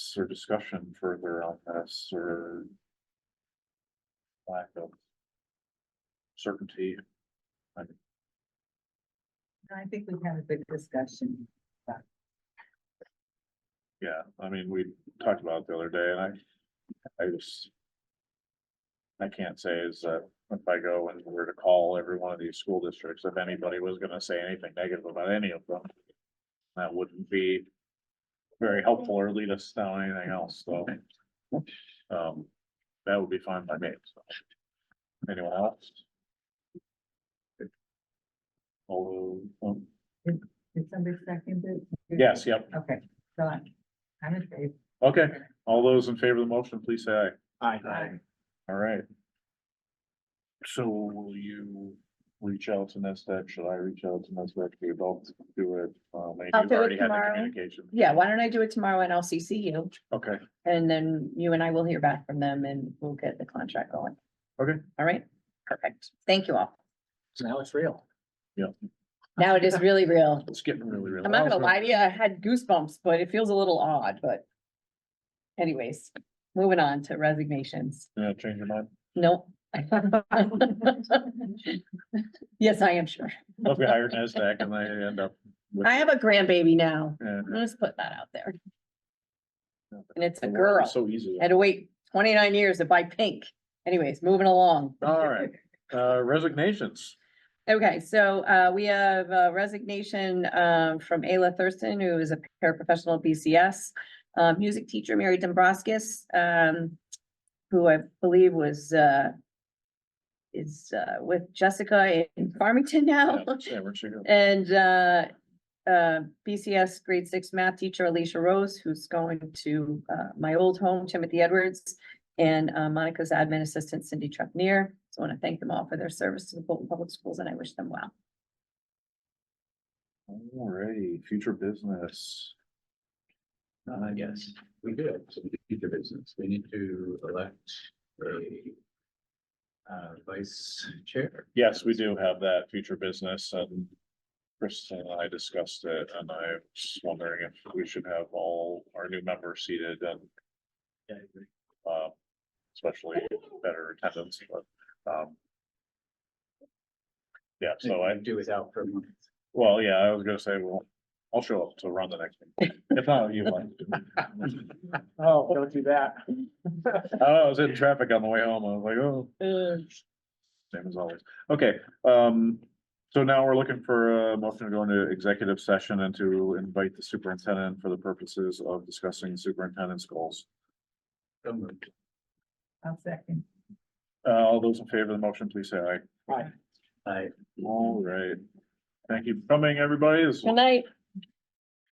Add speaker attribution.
Speaker 1: comments or discussion further on this or? Lack of. Certainty,
Speaker 2: I think we had a good discussion.
Speaker 1: yeah, I mean, we talked about it the other day and I, I just. I can't say is that if I go and were to call every one of these school districts, if anybody was gonna say anything negative about any of them. That wouldn't be very helpful or lead us down anything else, so. Um, that would be fine by me, so. Anyone else? Although, um,
Speaker 2: Did somebody second it?
Speaker 1: yes, yep,
Speaker 2: Okay, so I'm, I'm in favor.
Speaker 1: okay, all those in favor of the motion, please say aye.
Speaker 2: Aye.
Speaker 1: All right. So will you reach out to NESDAQ? Should I reach out to NESDAQ? We both do it. Um, and
Speaker 3: I'll
Speaker 1: you've
Speaker 3: do it
Speaker 1: already had the
Speaker 3: tomorrow.
Speaker 1: communication.
Speaker 3: Yeah, why don't I do it tomorrow and I'll CC you,
Speaker 1: Okay,
Speaker 3: and then you and I will hear back from them and we'll get the contract going.
Speaker 1: Okay.
Speaker 3: All right, perfect. Thank you all.
Speaker 4: So now it's real.
Speaker 3: Now it is really real.
Speaker 1: it's getting really, really.
Speaker 3: I'm not
Speaker 1: loud.
Speaker 3: gonna lie to you, I had goosebumps, but it feels a little odd, but anyways, moving on to resignations.
Speaker 1: Yeah, change your mind.
Speaker 3: Nope. Yes, I am sure.
Speaker 1: Well, If we hire NESDAQ and they end up. with-
Speaker 3: I have a grandbaby now.
Speaker 1: Yeah.
Speaker 3: Let's put that out there.
Speaker 1: Yeah, but
Speaker 3: And it's a
Speaker 1: it's
Speaker 3: girl.
Speaker 1: So easy.
Speaker 3: Had to wait twenty-nine years to buy pink. Anyways, moving along.
Speaker 1: All right, uh, resignations.
Speaker 3: Okay, so uh, we have a resignation um, from Ayla Thurston, who is a paraprofessional at BCS. uh, Music teacher Mary Dombroskis, um, who I believe was uh, is uh, with Jessica in Farmington now.
Speaker 1: Yeah, yeah, we're sure.
Speaker 3: And uh, uh, BCS grade six math teacher Alicia Rose, who's going to uh, my old home, Timothy Edwards. And uh, Monica's admin assistant Cindy Trepnier. So I want to thank them all for their service to the Bolton Public Schools and I wish them well.
Speaker 1: All righty, future business.
Speaker 4: Uh, yes, we do have some future business. We need to elect a uh, vice chair.
Speaker 1: Yes, we do have that future business and Kristen and I discussed it and I was wondering if we should have all our new members seated and
Speaker 4: Yeah, I agree.
Speaker 1: uh, especially better attendance, but um. Yeah, so I,
Speaker 4: Do without for a month.
Speaker 1: well, yeah, I was gonna say, well, I'll show up to run the next meeting. If not, you might.
Speaker 4: Oh, don't do that.
Speaker 1: I don't know, Oh, I was in traffic on the way home. I was like, oh.
Speaker 4: Uh.
Speaker 1: Same as always. Okay, um, so now we're looking for a motion to go into executive session and to invite the superintendent for the purposes of discussing superintendent's goals.
Speaker 4: So moved.
Speaker 2: I'll second.
Speaker 1: Uh, all those in favor of the motion, please say aye.
Speaker 4: I
Speaker 1: All right. Thank you for coming, everybody. This is
Speaker 3: Good night.